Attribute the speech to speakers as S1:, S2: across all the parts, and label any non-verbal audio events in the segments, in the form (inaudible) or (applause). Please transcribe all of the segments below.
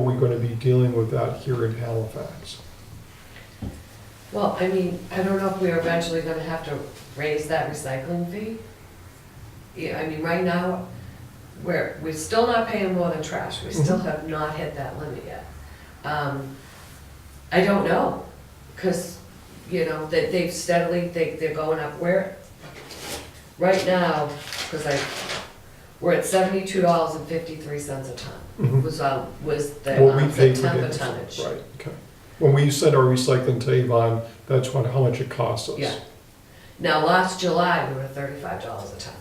S1: gonna be dealing with that here in Halifax.
S2: Well, I mean, I don't know if we're eventually gonna have to raise that recycling fee. Yeah, I mean, right now, we're, we're still not paying more than trash, we still
S1: Mhm.
S2: have not hit that limit yet. Um, I don't know, cause, you know, they, they've steadily, they, they're going up where, right now, cause I, we're at seventy-two dollars and fifty-three cents a ton,
S1: Mhm.
S2: was, uh, was the
S1: What we
S2: um,
S1: pay for
S2: September
S1: gas.
S2: tonnage.
S1: Right, okay. When we send our recycling to Avon, that's what, how much it costs us.
S2: Yeah. Now, last July, we were thirty-five dollars a ton.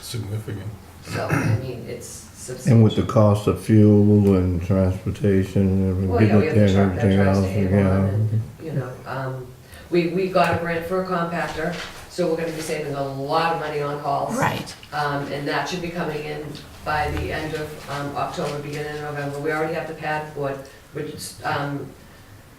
S3: Significant.
S2: So, I mean, it's
S4: And with the
S2: substantial.
S4: cost of fuel and transportation and
S2: Well, yeah, we
S4: everything,
S2: have the
S4: getting
S2: truck that
S4: everything
S2: tries
S4: else,
S2: to hang on
S4: yeah.
S2: and, you know, um, we, we got a grant for a compactor, so we're gonna be saving a lot of money on hauls.
S5: Right.
S2: Um, and that should be coming in by the end of, um, October, beginning of November. We already have the pad board, which, um,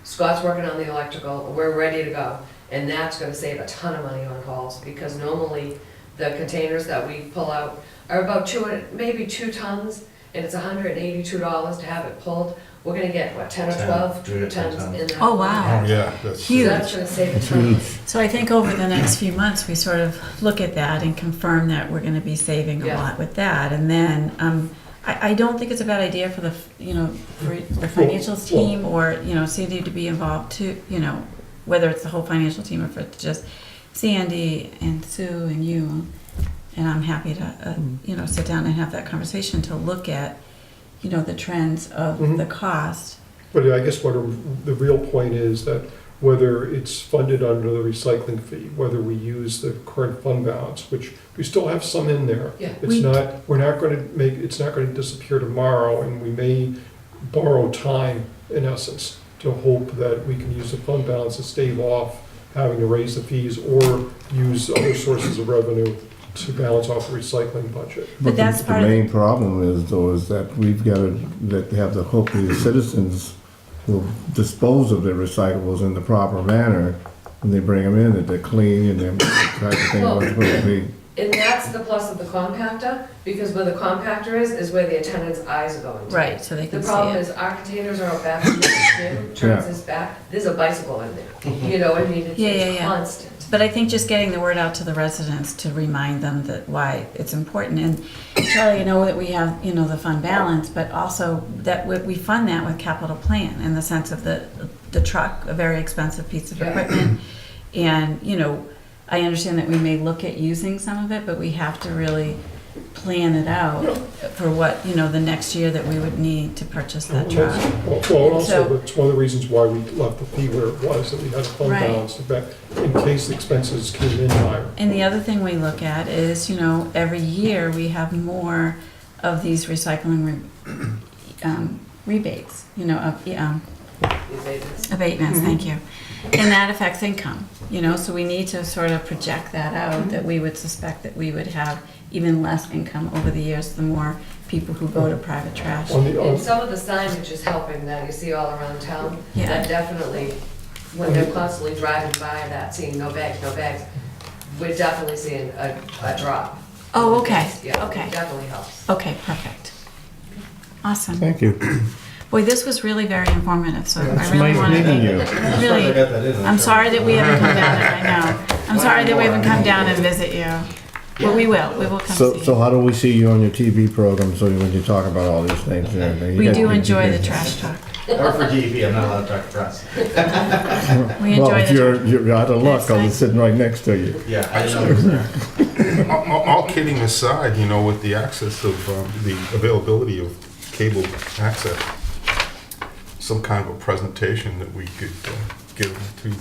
S2: Scott's working on the electrical, we're ready to go. And that's gonna save a ton of money on hauls, because normally the containers that we pull out are about two, hun- maybe two tons, and it's hundred and eighty-two dollars to have it pulled. We're gonna get, what, ten or
S6: Ten,
S2: twelve
S6: three to
S2: tons
S6: ten tons.
S2: in that.
S5: Oh, wow.
S3: Oh, yeah, that's.
S2: So
S5: Huge.
S2: that's gonna save a
S4: It's
S2: ton.
S4: huge.
S5: So I think over the next few months, we sort of look at that and confirm that we're gonna be saving a
S2: Yeah.
S5: lot with that. And then, um, I, I don't think it's a bad idea for the, f- you know, for the financials team or, you know, Sandy to be involved too, you know, whether it's the whole financial team or if it's just Sandy and Sue and you. And I'm happy to, uh, you know, sit down and have that conversation to look at, you know, the trends of
S1: Mhm.
S5: the cost.
S1: But I guess what a- the real point is that whether it's funded under the recycling fee, whether we use the current fund balance, which we still have some in there.
S2: Yeah.
S1: It's
S5: We-
S1: not, we're not going to make, it's not going to disappear tomorrow, and we may borrow time, in essence, to hope that we can use the fund balance to stave off having to raise the fees or use other sources of revenue to balance off the recycling budget.
S5: But
S4: the-
S5: that's
S4: the,
S5: part of-
S4: main problem is though is that we've got to that have the hope that the citizens will dispose of their recyclables in the proper manner when they bring them in that they're clean and they're the type of thing
S2: Well-
S4: was supposed to be.
S2: And that's the plus of the compactor, because where the compactor is, is where the attendant's eyes are going to.
S5: Right, so they
S2: The
S5: can see
S2: problem
S5: it.
S2: is our containers are out back, Jim turns his back, there's a bicycle in there, you know, I mean, it's-
S5: Mm-hmm. Yeah, yeah,
S2: it's
S5: yeah.
S2: constant.
S5: But I think just getting the word out to the residents to remind them that why it's important. And Charlie, I know that we have, you know, the fund balance, but also that we- we fund that with capital plan in the sense of the, the truck, a very expensive piece of
S2: Yeah.
S5: equipment. And, you know, I understand that we may look at using some of it, but we have to really plan it out for what, you know, the next year that we would need to purchase that truck.
S1: Well, Well, and also,
S5: So-
S1: that's one of the reasons why we left the fee where it was, that we had a fund
S5: Right.
S1: balance to back, in case the expenses came in higher.
S5: And the other thing we look at is, you know, every year we have more of these recycling re- (clears throat) um, rebates, you know, of, um,
S2: These agents.
S5: abatements, thank you. And that affects income, you know, so we need to sort of project that out, that we would suspect that we would have even less income over the years, the more people who go to private trash.
S1: On the,
S2: And
S1: on-
S2: some of the signage is helping that you see all around town,
S5: Yeah.
S2: that definitely, when they're constantly driving by that, seeing no bags, no bags, we're definitely seeing a, a drop.
S5: Oh, okay,
S2: Yeah,
S5: okay.
S2: it definitely helps.
S5: Okay, perfect. Awesome.
S4: Thank you.
S5: Boy, this was really very informative, so I
S4: It's
S5: really
S4: nice
S5: wanted
S4: meeting you.
S5: Really, I'm sorry that we haven't come down, and- I know, I'm sorry that we haven't come down and visit you. Well, we will, we will come
S4: So,
S5: see
S4: so
S5: you.
S4: how do we see you on your TV program? So when you talk about all these things and everything, You
S5: We
S4: got-
S5: do
S4: you-
S5: enjoy
S4: you-
S5: the trash talk.
S6: Or for DEP, I'm not allowed to talk to press.
S5: We
S4: Well,
S5: enjoy
S4: if
S5: the
S4: you're
S5: trash.
S4: you're out of luck,
S5: Next
S4: I'll be
S5: time.
S4: sitting right next to you.
S6: Yeah, I didn't know it was there.
S3: All, all- all kidding aside, you know, with the access of, um, the availability of cable access, some kind of a presentation that we could uh, give to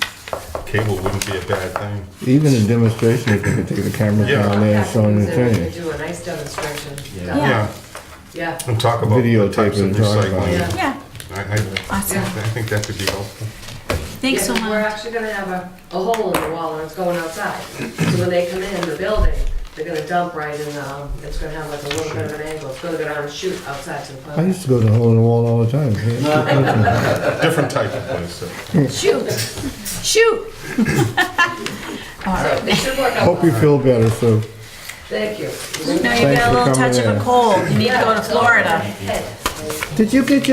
S3: cable wouldn't be a bad thing.
S4: Even in demonstration, if they could take the camera
S3: Yeah.
S4: down there and show them the
S2: Compactors, and we
S4: thing.
S2: could Do a nice demonstration.
S6: Yeah.
S5: Yeah.
S3: Yeah,
S2: Yeah,
S3: and talk about the
S4: Videotape
S3: types of
S4: and talk about
S3: recycling.
S2: it.
S5: Yeah,
S3: I, I,
S5: awesome.
S3: I think that could be helpful.
S5: Thanks so
S2: Yeah, We're
S5: much.
S2: actually gonna have a, a hole in the wall and it's going outside. So when they come in the building, they're gonna dump right in, um, it's gonna have like a little bit of an angle. It's gonna go down and shoot outside to the
S4: I
S2: pond.
S4: used to go to the hole in the wall all the time.
S3: Different type of place, so.
S5: Shoot, shoot. (laughs) All
S2: So
S5: right.
S2: they should work out.
S4: Hope you
S2: well.
S4: feel better, Sue.
S2: Thank you.
S5: No, you
S4: Thanks
S5: got a
S4: for
S5: little touch
S4: coming
S5: of a
S4: in.
S5: cold, you need to go
S2: Yeah,
S5: to
S2: it's
S5: Florida.
S2: over my head.
S4: Did you get your